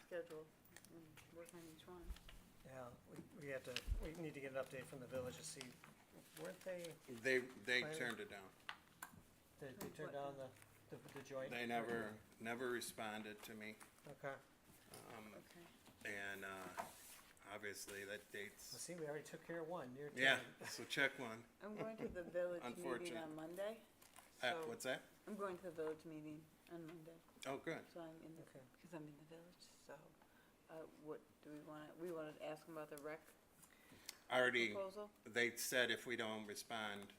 schedule and work on each one. Yeah, we, we have to, we need to get an update from the village to see, weren't they, They, they Fire- turned it down. they, they turned down the, the, the joint? They never, never responded to me. Okay, well, Um, Okay. and, uh, obviously that dates, see, we already took care of one, you're. yeah, so check one. I'm going to the village meeting Unfortunate. on Monday. Uh, so- what's that? I'm going to the village meeting on Monday, Oh, good. so I'm in the, Okay, because I'm in the village, so, uh, what, do we wanna, we wanna ask them about the rec Already, proposal? they said if we don't respond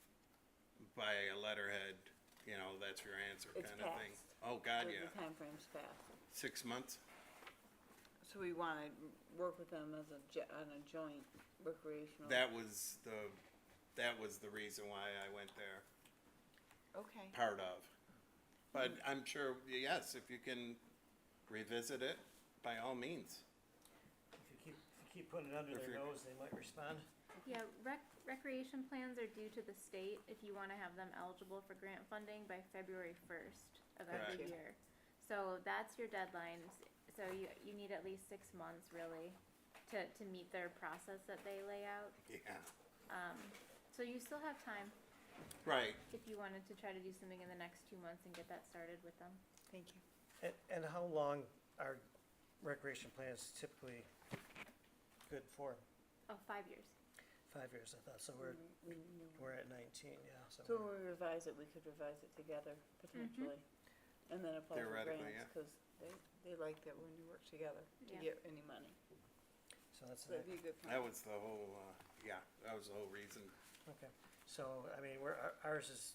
by a letterhead, you know, that's your answer It's kind of thing. passed. Oh, God, The- yeah. The timeframe's fast, Six months? so we wanna work with them as a, jo- on a joint recreational. That was the, that was the reason why I went there, Okay, part of. But Mm. I'm sure, yes, if you can revisit it, by all means. if you keep, if you keep putting it under If their you're- nose, they might respond. Yeah, rec- recreation plans are due to the state if you wanna have them eligible for grant funding by February first of every Correct. year. So that's your deadline, S- so you, you need at least six months really to, to meet their process that they lay out. Yeah. Um, so you still have time Right, if you wanted to try to do something in the next two months and get that started with them. thank you. And, and how long are recreation plans typically good for? Oh, five years. Five years, I thought, so we're, We knew we're at nineteen, yeah, Mm-hmm. so. So when we're- we revise it, we could revise it together Mm-hmm. potentially, and then apply for Theoretically, grants, yeah. cause they, they like that when you work together to Yeah. get any money. So that's, So that'd it. be a good that plan. was the whole, uh, yeah, that was the whole reason. okay, so, I mean, we're, our- ours is,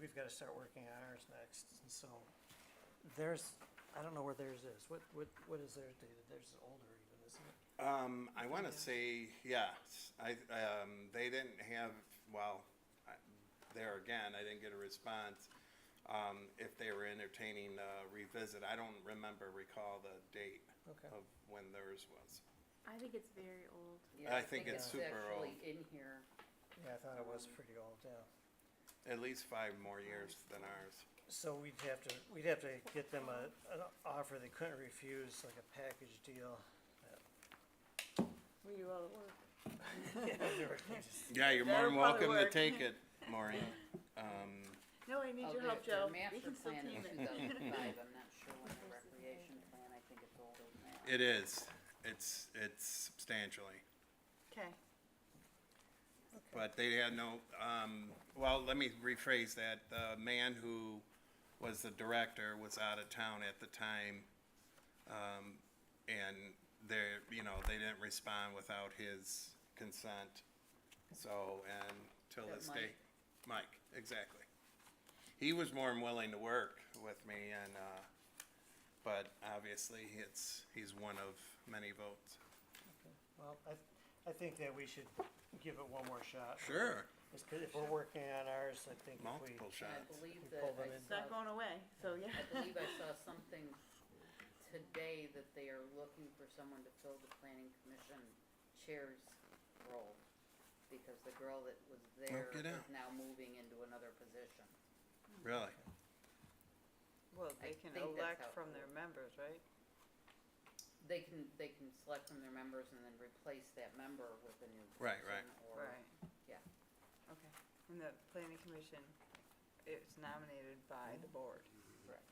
we've gotta start working on ours next, and so. There's, I don't know where theirs is, what, what, what is theirs dated, theirs is older even, isn't it? Um, I wanna Yeah. say, yes, I, um, they didn't have, well, I- there again, I didn't get a response. Um, if they were entertaining, uh, revisit, I don't remember, recall the date Okay. of when theirs was. I think it's very old. Yeah, I think it's super old. actually in here. Yeah, I thought it was pretty old, yeah. At least five more years than ours. So we'd have to, we'd have to get them a, an offer they couldn't refuse, like a package deal. We do all the work. Yeah, you're more That'll probably than welcome to work. take it, Maureen. Um, No, I need Oh, your the- help, the Joe. We master can still plan team is it. 2005. I'm not sure when the Versus recreation later. plan, I think it's older than that. it is, it's, it's substantially. Okay, But they had no, um, well, let me rephrase that. The man who was the director was out of town at the time. Um, and they're, you know, they didn't respond without his consent. So, and till That this Mike? day, Mike, exactly. He was more than willing to work with me and, uh, but obviously it's, he's one of many votes. Well, I, I think that we should give it one more shot. Sure, It's 'cause if we're working on ours, I think if we, multiple And I shots. believe We that pull them I in. it's saw, not going away, so yeah. I believe I saw something today that they are looking for someone to fill the planning commission chair's role. Because the girl that was there get is out. now moving into another position. Really? Well, I they can think that's elect how it from their works. members, right? They can, they can select from their members and then replace that member with a new person. Right, right. Or Right. yeah. Okay, and the planning commission, it's nominated by the board. Correct.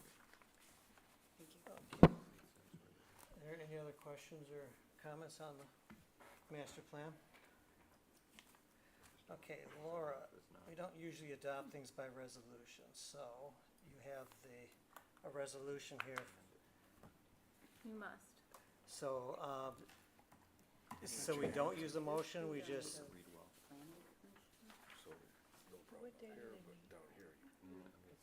Okay. Thank you. are there any other questions or comments on the master plan? Okay, Laura, we don't usually adopt things by resolution, so you have the, a resolution here You must. So, um, so we don't use a motion, we just, read well, Planning commission? so no problem up What day do here, they but meet? down here.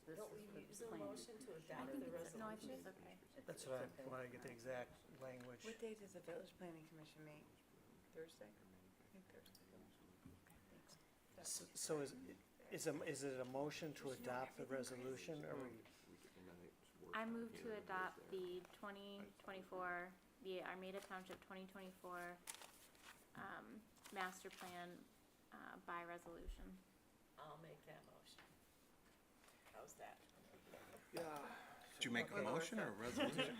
This Don't is we the use a planning motion to commission. adopt the No, I think resolution? it's okay. It's- that's it's what okay. I wanna get the Alright. exact language. What day does the village planning commission meet? Thursday? I think Thursday. S- So is, is a, is it a motion to adopt the resolution, or we, I move to adopt the twenty twenty-four, the Armada Township twenty twenty-four, um, master plan, uh, by resolution. I'll make that motion. How's that? Did you make a motion or a resolution?